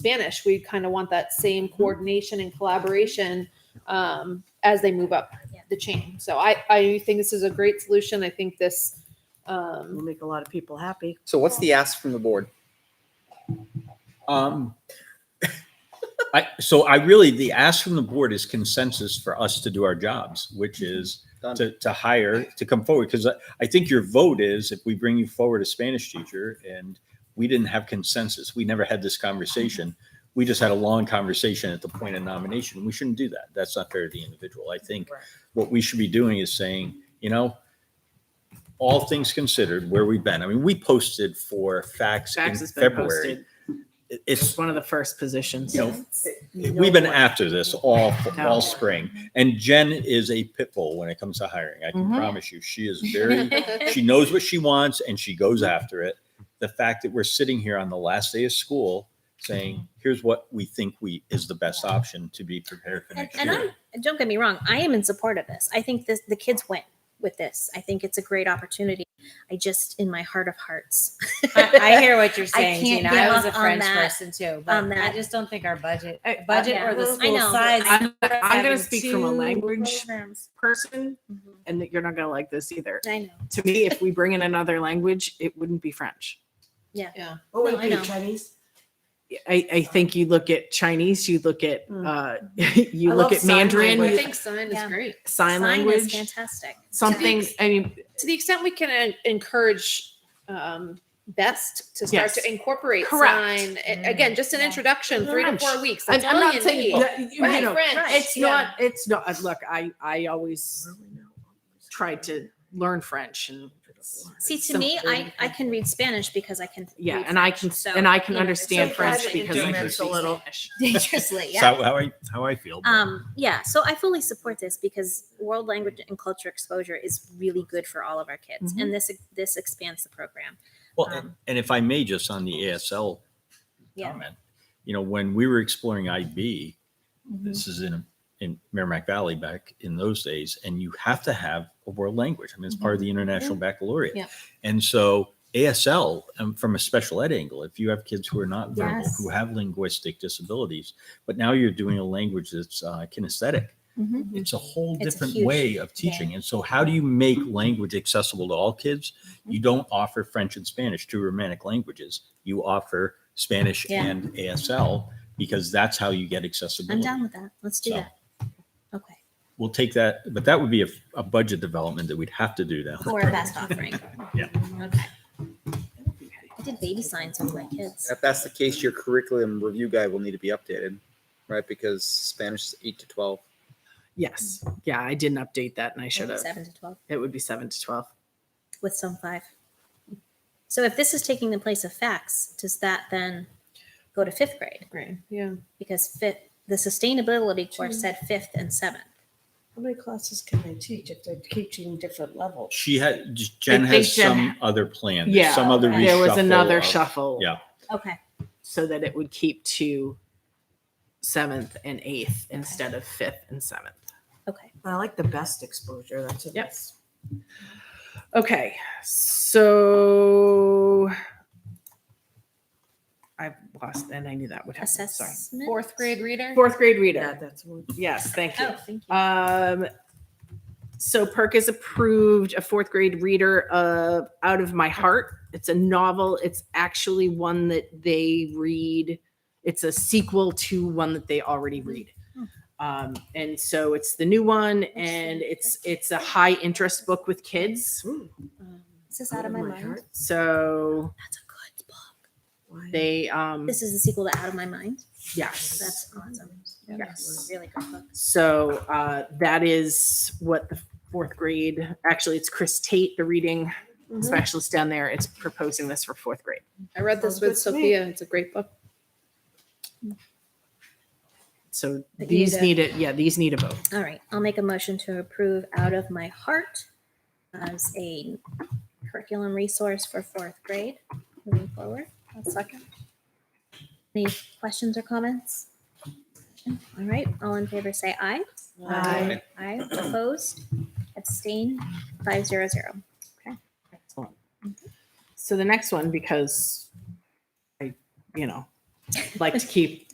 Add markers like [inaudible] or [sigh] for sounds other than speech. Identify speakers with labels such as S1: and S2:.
S1: Spanish. We kind of want that same
S2: Mm-hmm.
S1: coordination and collaboration um, as they move up
S3: Yeah.
S1: the chain. So I, I think this is a great solution. I think this, um,
S2: Will make a lot of people happy.
S4: So what's the ask from the board?
S5: Um, I, so I really, the ask from the board is consensus for us to do our jobs, which
S2: Mm-hmm.
S5: is
S4: Done.
S5: to, to hire, to come forward. Because I, I think your vote is if we bring you forward a Spanish teacher and we didn't have consensus, we never had this conversation. We just had a long conversation at the point of nomination. We shouldn't do that. That's not fair to the individual. I think
S2: Right.
S5: what we should be doing is saying, you know, all things considered, where we've been. I mean, we posted for facts in
S2: Fax has been
S5: February.
S2: posted.
S5: It-
S2: It's
S5: It's,
S2: one of the first positions.
S5: you know, we've been after this all all spring, and Jen is a pit bull when it comes to hiring. I can
S2: Mhm.
S5: promise you, she is very. she knows what she wants, and she goes after it. The fact that we're sitting here on the last day of school saying, "Here's what we think we is the best option to be prepared for
S3: And,
S5: next
S3: and
S5: year."
S3: I'm, [laughs] and don't get me wrong, I am in support of this. I think this, the kids win with this. I think it's a great opportunity. I just, in my heart of hearts,
S6: I,
S3: [laughs]
S6: I hear what you're saying,
S3: can't
S6: Gina.
S3: give
S6: I was a
S3: up on
S6: French
S3: that-
S6: person too, but
S3: on that. Uh,
S6: I just don't think our budget, budget
S3: yeah.
S6: or the
S3: I
S6: school
S3: know.
S6: size.
S2: I'm, I'm going
S6: having
S2: to speak from a
S6: two
S2: language
S6: programs.
S2: person, and that you're not going to like this either.
S3: I know.
S2: To me, if we bring in another language, it wouldn't be French.
S1: yeah.
S7: What would
S3: No, I
S7: it be,
S3: know.
S7: Chinese?
S2: I, I think you look at Chinese, you look at
S7: Mm.
S2: uh, [laughs] you
S7: I
S2: look
S7: love
S2: at
S7: sign
S2: Mandarin,
S1: I
S7: language.
S2: you-
S1: think sign is
S3: Yeah.
S1: great.
S3: Sign
S2: sign,
S3: is
S2: language,
S3: fantastic.
S2: something. I mean,
S1: To the extent we can en- encourage, um, best to start
S2: Yes.
S1: to incorporate
S2: Correct.
S1: sign. A- Again, just an
S6: Yeah.
S1: introduction, three to
S2: French.
S1: four weeks.
S2: I'm
S1: That's
S2: I'm
S1: all
S2: not
S1: you
S2: saying
S1: need.
S2: that, you
S1: Right,
S2: know,
S1: French.
S3: Right.
S2: it's
S3: Yeah.
S2: not. It's not. uh, Look, I I always tried to learn French and
S3: See, to
S2: some-
S3: me, I, I can read Spanish because I can.
S2: yeah,
S3: read
S2: and I can
S3: French, so,
S2: and I can
S3: you know,
S2: understand
S3: so
S2: French
S7: private
S2: because I
S5: interest.
S2: can a little.
S3: [laughs] Dangerously, yeah.
S5: So how I how I feel. but-
S3: Um, yeah, so I fully support this because world language and culture exposure is really good for all of our kids,
S2: Mm-hmm.
S3: and this this expands the program.
S5: Well,
S3: Um,
S5: and- and if I may, just on the ASL
S3: Yeah.
S5: comment, you know, when we were exploring IB,
S3: Mm-hmm.
S5: this is in, in Merrimack Valley back in those days, and you have to have a world language. I mean, it's part of
S3: Mm-hmm.
S5: the International Baccalaureate.
S1: Yeah.
S5: And so ASL, um, from a special ed angle, if you have kids who are not verbal,
S3: Yes.
S5: who have linguistic disabilities, but now you're doing a language that's uh, kinesthetic.
S3: Mhm.
S5: It's a whole
S3: It's a
S5: different
S3: huge- Mm-hmm.
S5: way of teaching. And so, how do you make language accessible to all kids? You don't offer French and Spanish, two Romantic languages. You offer Spanish
S3: Yeah.
S5: and ASL because that's how you get accessibility.
S3: I'm down with that. Let's do
S5: Mm-hmm. So-
S3: that. Okay,
S5: We'll take that, but that would be a, a budget development that we'd have to do now.
S3: for a best offering.
S5: Yeah.
S3: Okay. I did baby signs with my kids.
S4: If that's the case, your curriculum review guide will need to be updated, right? Because Spanish is eight to twelve.
S2: Yes, yeah, I didn't update that, and I should have.
S3: Seven to twelve
S2: It would be seven to twelve.
S3: with some five. So if this is taking the place of facts, does that then go to fifth grade?
S1: Great, yeah.
S3: Because fifth, the sustainability course said fifth and seventh.
S7: How many classes can they teach if they're teaching different levels?
S5: She had, Jen
S2: I think
S5: has
S2: Jen-
S5: some other plan. There's
S2: Yeah,
S5: Some other reshuffle.
S2: There was another
S5: of-
S2: shuffle.
S5: yeah.
S3: Okay.
S2: so that it would keep to seventh and eighth instead of fifth and seventh.
S3: Okay.
S7: I like the best exposure. That's a
S2: Yep. Okay, so I've lost, and I knew that would happen. Sorry.
S3: Assessment.
S1: Fourth grade reader.
S2: Fourth grade
S7: Yeah,
S2: reader.
S7: that's one.
S2: Yes, thank you.
S3: Oh, thank you.
S2: Um, so Perk has approved a fourth grade reader of Out of My Heart. It's a novel. It's actually one that they read. It's a sequel to one that they already read.
S3: Hmm.
S2: Um, and so it's the new one, and
S3: Interesting.
S2: it's it's a high interest book with kids.
S3: Hmm.
S7: Ooh,
S3: Is this out of my mind?
S7: heart.
S2: So
S3: That's a good book.
S7: Why?
S2: they um
S3: This is the sequel to Out of My Mind.
S2: yes.
S3: That's awesome.
S2: Yes.
S3: Really good book.
S2: So uh, that is what the fourth grade. Actually, it's Chris Tate, the reading
S1: Mhm.
S2: specialist down there is proposing this for fourth grade.
S1: I read this
S7: Sounds
S1: with
S7: good to me.
S1: Sophia. It's a great book.
S2: So
S3: But
S2: these
S3: need
S2: need it. Yeah, these need a vote.
S3: All right. I'll make a motion to approve Out of My Heart as a curriculum resource for fourth grade moving forward. One second. Any questions or comments? All right. All in favor say aye.
S2: Aye.
S3: Aye. Opposed? Abstain? Five zero zero.
S2: Excellent. So the next one, because I, you know, like to keep